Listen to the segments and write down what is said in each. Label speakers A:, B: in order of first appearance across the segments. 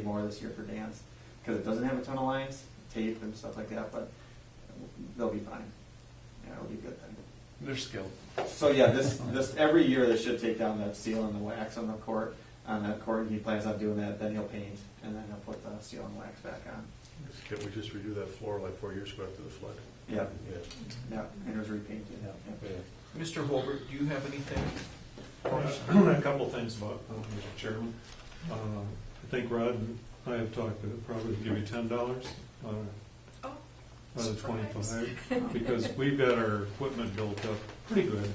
A: more this year for dance, because it doesn't have a ton of lines, tape and stuff like that, but they'll be fine. Yeah, it'll be a good thing.
B: They're skilled.
A: So yeah, this, this, every year they should take down that seal and the wax on the court, on that court, and he plans on doing that, then he'll paint, and then he'll put the seal and wax back on.
C: Can we just redo that floor like four years ago after the flood?
A: Yeah,
C: Yeah.
A: yeah, and it was repainted, yeah.
D: Mr. Holbert, do you have anything?
E: A couple things about, uh, Mr. Chairman. Uh, I think Rod and I have talked, to probably give you ten dollars on a,
F: Oh,
E: on a
F: surprise.
E: twenty-five. Because we've got our equipment built up pretty good.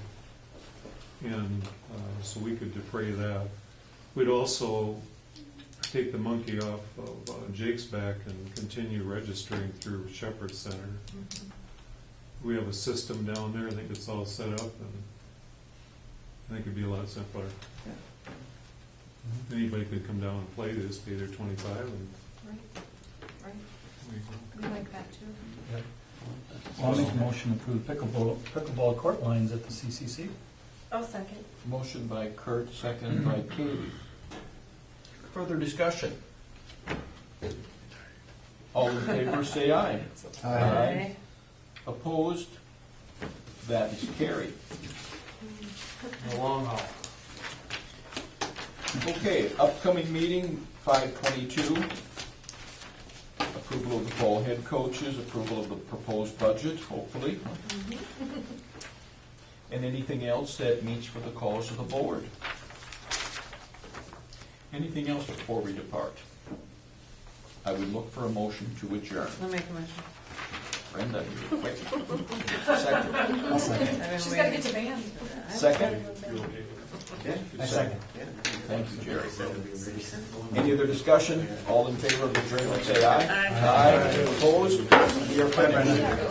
E: And, uh, so we could defray that. We'd also take the monkey off of uh, Jake's back and continue registering through Shepherd Center.
F: Mhm.
E: We have a system down there, I think it's all set up and I think it'd be a lot simpler.
A: Yeah.
E: Anybody could come down and play this, pay their twenty-five and
F: Right, right.
E: we
F: We like that too.
G: I'll make a motion to approve pickleball, pickleball court lines at the CCC.
F: I'll second.
H: Motion by Kurt, second by Katie.
D: Further discussion?
H: All in favor, say aye.
F: Aye.
H: Opposed? That is carried.
D: The long haul.
H: Okay, upcoming meeting, five twenty-two. Approval of the poll head coaches, approval of the proposed budget, hopefully. And anything else that meets for the cause of the board. Anything else before we depart? I would look for a motion to adjourn.
I: I'll make a motion.
H: Brenda, you're quick. Second.
F: She's gotta get to band.
H: Second?
A: Yeah.
H: Second. Thank you, Jerry. Any other discussion? All in favor of adjournment, say aye. Aye. Opposed? We are finished.